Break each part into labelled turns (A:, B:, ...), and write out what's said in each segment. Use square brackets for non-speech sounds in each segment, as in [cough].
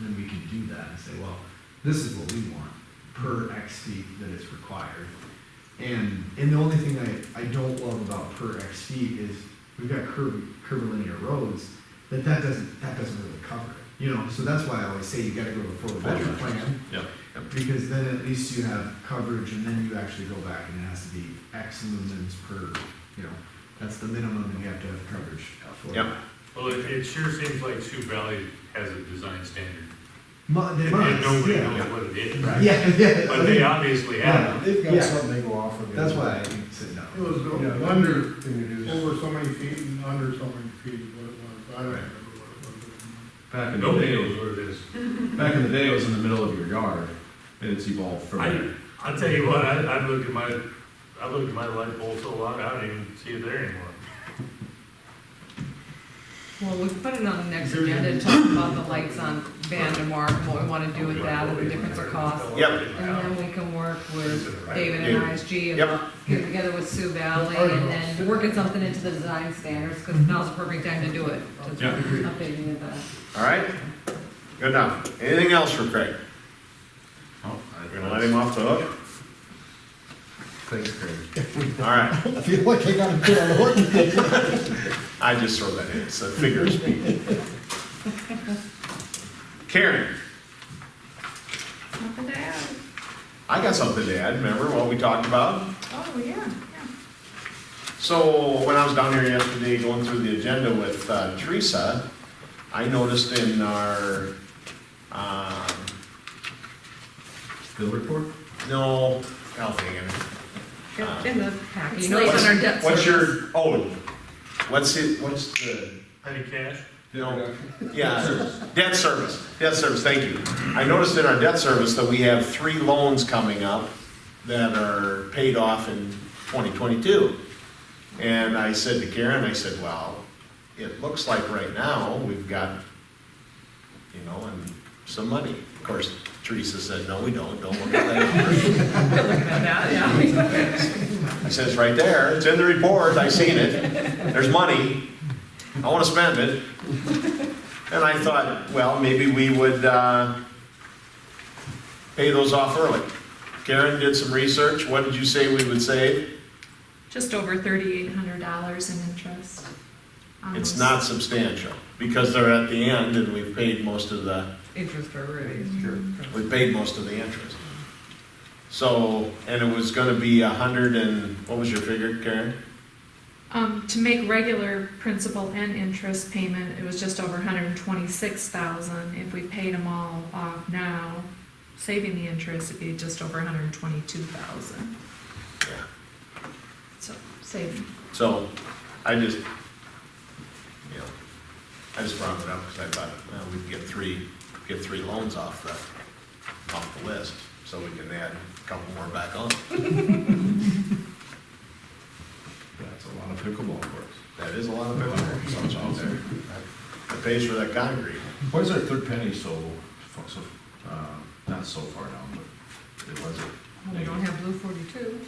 A: then we can do that and say, well, this is what we want per X feet that is required. And, and the only thing I, I don't love about per X feet is we've got curb, curvilinear roads, that that doesn't, that doesn't really cover it. You know, so that's why I always say you gotta go before the
B: Full
A: measure
B: measures.
A: plan,
B: Yep.
A: because then at least you have coverage and then you actually go back and it has to be X lumens per, you know, that's the minimum and you have to have coverage for
B: Yep.
A: that.
C: Well, it, it sure seems like Sioux Valley has a design standard,
A: Mu- they
C: and
A: must,
C: nobody
A: yeah.
C: knows what it
A: [laughs]
C: is,
A: Yeah,
C: right?
A: yeah.
C: But they obviously have.
D: They've
A: Yeah.
D: got something they go off of.
A: That's why I said no.
E: It was
D: You know,
E: the
D: the
E: under,
D: under thing to do is,
E: over so many feet and under so many feet is what it was, I don't remember what
B: Back in the
C: Nobody
B: day,
C: knows what it is.
B: back in the day, it was in the middle of your yard, and it's evolved from
C: I,
B: there.
C: I'll tell you what, I, I look at my, I look at my light pole so long, I don't even see it there anymore.
F: Well, we can put it on the next agenda and talk about the lights on Vandemar, and what we wanna do with that, and the difference of cost.
B: Yep.
F: And then we can work with David and ISG and get together with Sioux Valley and then working something into the design standards, cause now's the perfect time to do it. to
B: Yeah.
F: Updating it back.
G: All right, good enough. Anything else for Craig?
B: Oh, I-
G: We're gonna let him off the hook?
B: Thanks,
G: [laughs]
B: Craig.
G: All right,
D: I feel like I gotta put on a hook.
G: I just throw that in, it's a figure of speech. Karen,
H: Nothing to add.
G: I got something to add, remember what we talked about?
H: Oh, yeah, yeah.
G: So when I was down here yesterday going through the agenda with uh, Teresa, I noticed in our, um,
B: Bill report?
G: no, I'll think of
F: It's In the packet, you
H: It's
F: know,
G: it.
F: it's on our
G: What's-
F: debt
G: What's
F: service.
G: your, oh, what's it, what's the?
C: Petty cash?
G: No, yeah, debt service, debt service, thank you. I noticed in our debt service that we have three loans coming up that are paid off in 2022. And I said to Karen, I said, well, it looks like right now, we've got, you know, and some money. Of course, Teresa said, no, we don't, don't look at that.
F: [laughs] Good looking at that, yeah.
G: I said, it's right there, it's in the report, I seen it, there's money, I wanna spend it. And I thought, well, maybe we would, uh, pay those off early. Karen did some research, what did you say we would save?
H: Just over thirty-eight hundred dollars in interest. Um, on
G: It's
H: those.
G: not substantial, because they're at the end and we've paid most of the,
F: Interest already, it's true.
G: we paid most of the interest. So, and it was gonna be a hundred and, what was your figure, Karen?
H: Um, to make regular principal and interest payment, it was just over hundred and twenty-six thousand. If we paid them all off now, saving the interest, it'd be just over hundred and twenty-two thousand.
G: Yeah.
H: So, saving.
G: So, I just, you know, I just brought it up because I thought, well, we can get three, get three loans off the, off the list, so we can add a couple more back on.
B: [laughs] That's a lot of pickleball courts.
G: That is a lot of money, so it's out there. That pays for that concrete.
B: Why is our third penny so, so, uh, not so far down, but it was
F: Well, We don't
B: it?
F: have blue forty-two.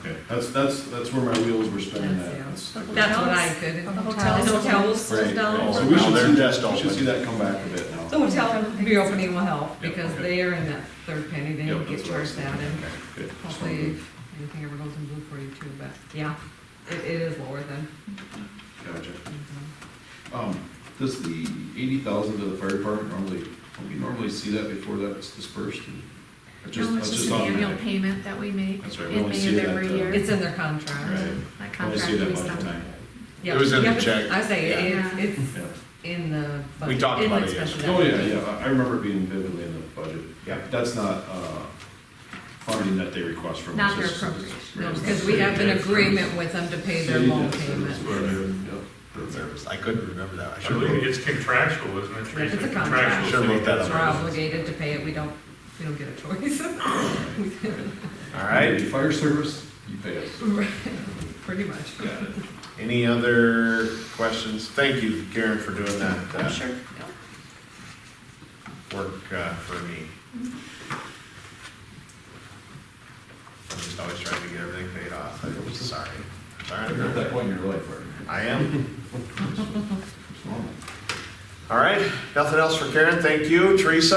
B: Okay, that's, that's, that's where my wheels were spinning
F: That's
B: at.
F: the-
B: That's-
F: That's what I could.
H: The hotels.
F: Hotels,
B: Right. Oh,
F: down.
B: So we
G: Now
B: should
G: they're
B: see
G: just
B: that, we should
G: open.
B: see that come back a bit now.
F: The hotel reopening will help, because
B: okay.
F: they are in that third penny, they
B: Yep,
F: get
B: that's what I was
F: charged that,
B: thinking.
F: and
B: Okay, good. Just
F: hopefully,
B: wondering.
F: if anything ever goes in blue for you too, but, yeah, it, it is lower than.
B: Gotcha. Um, does the eighty thousand to the fire department normally, don't we normally see that before that's dispersed? That's just-
H: No, it's
B: that's
H: just an annual
B: automatic.
H: payment that we make
B: That's right, we
H: in
B: only
H: May
B: see
H: of
B: that,
H: every
B: uh,
H: year.
F: It's in their contract.
B: Right.
H: That
B: Only
H: contract
B: see that
H: we
B: budget
H: signed.
B: time.
F: Yeah.
G: was in the
F: Yep, it's-
G: check.
F: I say, it-
H: Yeah.
F: it's, it's
B: Yeah.
F: in the.
G: We
F: budget,
G: talked
F: in
G: about
F: the
G: it
F: special
B: Oh, yeah,
F: ed.
B: yeah, I I remember it being vividly in the budget.
G: Yeah.
B: That's not, uh, funding that they request from us.
H: Not their
B: It's- it's-
H: appropriation.
F: No, because we have an agreement with them to pay their
B: City
F: loan
B: debt service,
F: payment.
B: right,
G: Food service. I couldn't remember that. I should
C: Surely
G: have.
C: it's contractual, isn't it? Teresa?
F: It's a contract.
C: Contractual
G: Should've looked that
C: thing.
G: up.
F: We're obligated to pay it, we don't, we don't get a choice, [laughs]
G: All
B: yep.
G: right,
B: Fire service, you pay us.
F: pretty much.
B: Got it.
G: any other questions? Thank you, Karen, for doing that. uh,
H: Sure.
G: work uh, for me. I'm just always trying to get everything paid off, I'm sorry.
B: You're at
G: Sorry,
B: that point in your life, right?
G: I am.
B: It's normal. [laughs]
G: All right, nothing else for Karen, thank you, Teresa.